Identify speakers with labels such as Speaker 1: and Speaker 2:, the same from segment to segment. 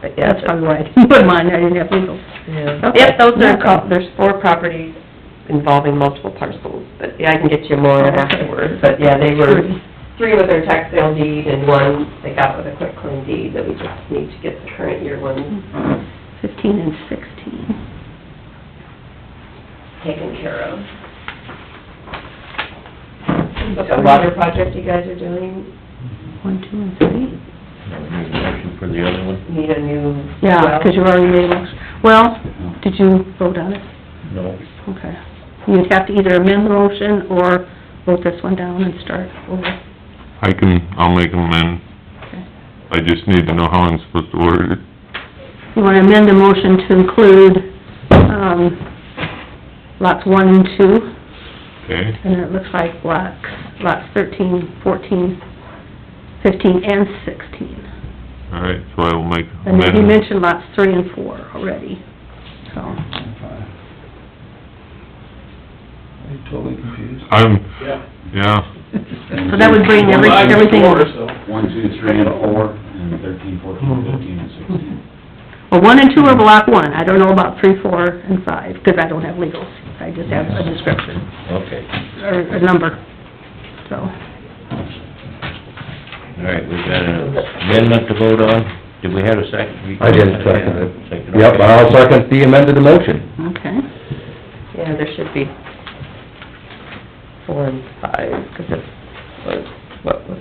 Speaker 1: but yeah, that's probably why I didn't put mine, I didn't have legal. Okay.
Speaker 2: Yep, those are,
Speaker 1: Yeah.
Speaker 2: co- there's four properties involving multiple parcels, but yeah, I can get you more afterwards, but yeah, they were three with their tax sale deed and one they got with a quick claim deed, that we just need to get the current year one
Speaker 1: Fifteen and sixteen.
Speaker 2: taken care of. But the water project you guys are doing,
Speaker 1: One, two, and three?
Speaker 3: Need a motion for the other one?
Speaker 2: need a new
Speaker 1: Yeah, because you already made a motion. Well, did you vote on it?
Speaker 3: No.
Speaker 1: Okay. You'd have to either amend the motion or vote this one down and start over.
Speaker 4: I can, I'll make them amend. I just need to know how I'm supposed to order it.
Speaker 1: You want to amend the motion to include, um, lots one and two,
Speaker 4: Okay,
Speaker 1: and it looks like lots, lots thirteen, fourteen, fifteen, and sixteen.
Speaker 4: all right, so I will make
Speaker 1: And then you
Speaker 4: amendment.
Speaker 1: mentioned lots three and four already, so,
Speaker 3: Are you totally confused?
Speaker 4: I'm, yeah,
Speaker 1: so that would bring every, everything, well,
Speaker 5: One, two, three, and four, and thirteen, fourteen, fifteen, and sixteen.
Speaker 1: one and two are block one, I don't know about three, four, and five, because I don't have legals, I just have a description,
Speaker 3: Okay,
Speaker 1: or a number, so.
Speaker 3: all right, we got an amendment to vote on. Did we have a second?
Speaker 6: I did second it.
Speaker 3: Second,
Speaker 6: Yep,
Speaker 3: okay.
Speaker 6: I'll second the amended motion.
Speaker 1: Okay.
Speaker 2: Yeah, there should be four and five, because it was, what was...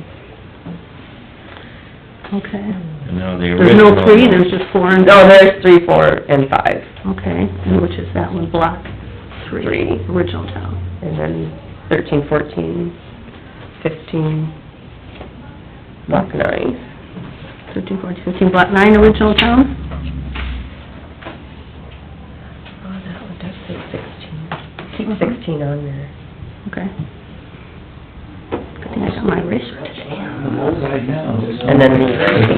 Speaker 1: Okay.
Speaker 3: And now the
Speaker 1: There's no
Speaker 3: original.
Speaker 1: three, there's just four and...
Speaker 2: No, oh, there's three, four, and five,
Speaker 1: Okay, and which is that one, block three?
Speaker 2: Three.
Speaker 1: Original town.
Speaker 2: and then thirteen, fourteen, fifteen, block nine.
Speaker 1: Thirteen, fourteen, fifteen, block nine, original town?
Speaker 2: Oh, that one does say sixteen. Keep sixteen on there.
Speaker 1: Okay. Good thing I got my eraser today.
Speaker 2: And then the...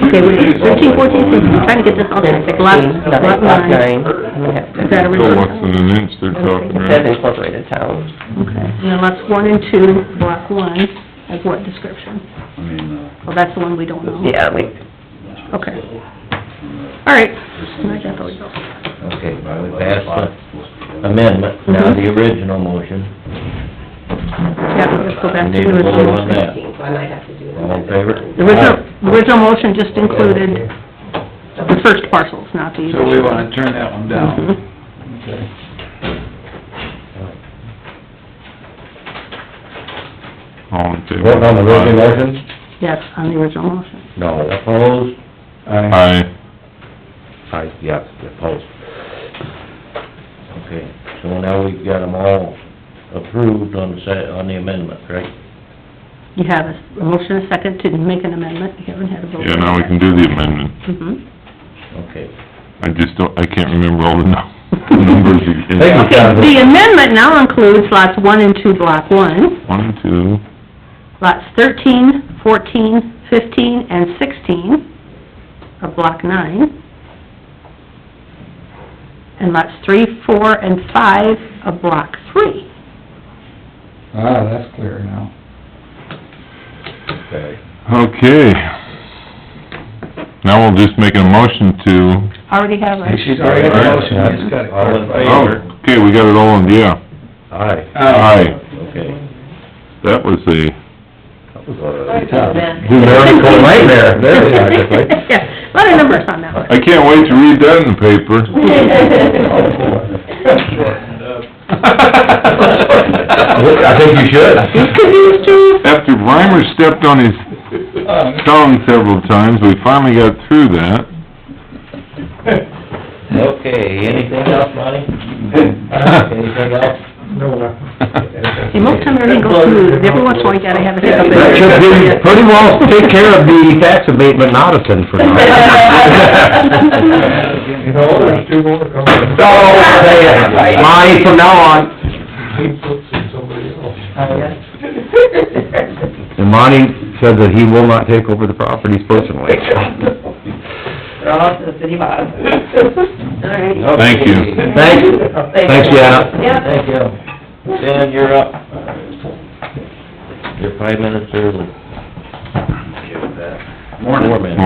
Speaker 1: Okay, we, thirteen, fourteen, fifteen, I'm trying to get this all
Speaker 2: And then
Speaker 1: down.
Speaker 2: sixteen,
Speaker 1: Block,
Speaker 2: nothing,
Speaker 1: block
Speaker 2: block nine.
Speaker 1: nine.
Speaker 2: and we have to-
Speaker 1: Is that
Speaker 4: so
Speaker 1: original
Speaker 4: less
Speaker 1: town?
Speaker 4: than an inch they're
Speaker 2: I don't
Speaker 4: talking,
Speaker 2: think It says
Speaker 4: right?
Speaker 2: incorporated town.
Speaker 1: Okay, and then lots one and two, block one, of what description?
Speaker 5: I mean, uh,
Speaker 1: Well, that's the one we don't know.
Speaker 2: Yeah, we,
Speaker 1: Okay, all right. I got the legals.
Speaker 3: Okay, well, we passed the amendment, now
Speaker 1: Mm-hmm.
Speaker 3: the original motion.
Speaker 1: Yeah, let's go back to
Speaker 3: Need
Speaker 1: the
Speaker 3: a vote
Speaker 1: original.
Speaker 3: on that.
Speaker 2: so I might have to do that.
Speaker 3: All in favor?
Speaker 1: The original, the original motion just included the first parcels, not the...
Speaker 5: So we wanna turn that one down.
Speaker 1: Mhm.
Speaker 4: All in favor?
Speaker 6: Voting on the original motion?
Speaker 1: Yes, on the original motion.
Speaker 6: No.
Speaker 3: Opposed?
Speaker 6: Aye.
Speaker 4: Aye,
Speaker 6: Aye, yes, opposed.
Speaker 3: Okay, so now we've got them all approved on the se, on the amendment, right?
Speaker 1: You have a a motion, a second to make an amendment, you haven't had a vote.
Speaker 4: yeah, now we can do the amendment.
Speaker 1: Mhm.
Speaker 3: Okay.
Speaker 4: I just don't, I can't remember all the num- numbers you
Speaker 6: Thank you.
Speaker 4: gave.
Speaker 1: Okay, the amendment now includes lots one and two, block one,
Speaker 4: One, two,
Speaker 1: lots thirteen, fourteen, fifteen, and sixteen of block nine, and lots three, four, and five of block three.
Speaker 7: Ah, that's clear now.
Speaker 3: Okay.
Speaker 4: okay. Now we'll just make a motion to,
Speaker 1: Already have a...
Speaker 7: She's already got a motion, I just gotta
Speaker 3: All in
Speaker 7: clarify.
Speaker 4: oh,
Speaker 3: favor?
Speaker 4: okay, we got it all in, yeah.
Speaker 3: Aye.
Speaker 4: Aye,
Speaker 3: Okay.
Speaker 4: that was a,
Speaker 6: That was a
Speaker 4: numerical
Speaker 6: nightmare, there we are, just like-
Speaker 1: Yeah, a lot of numbers on that one.
Speaker 4: I can't wait to read that in the paper.
Speaker 6: I think you should.
Speaker 4: After Reimer stepped on his tongue several times, we finally got through that.
Speaker 3: Okay, anything else, Monty? Anything else?
Speaker 1: See, most time everything goes smooth, every once in a while you gotta have a hiccup. in
Speaker 6: That
Speaker 1: there.
Speaker 6: should be pretty well take care of the tax abatement in Odison for now.
Speaker 7: You know, there's two more coming.
Speaker 6: Oh, man, Mine from now on. And Monty said that he will not take over the properties personally.
Speaker 2: They're all to the city bottom. All right.
Speaker 4: Thank you.
Speaker 6: Thanks, thanks, Janet.
Speaker 2: Yeah.
Speaker 3: Thank you. Dan, you're up. You're five minutes early.
Speaker 5: Morning.
Speaker 3: Four minutes.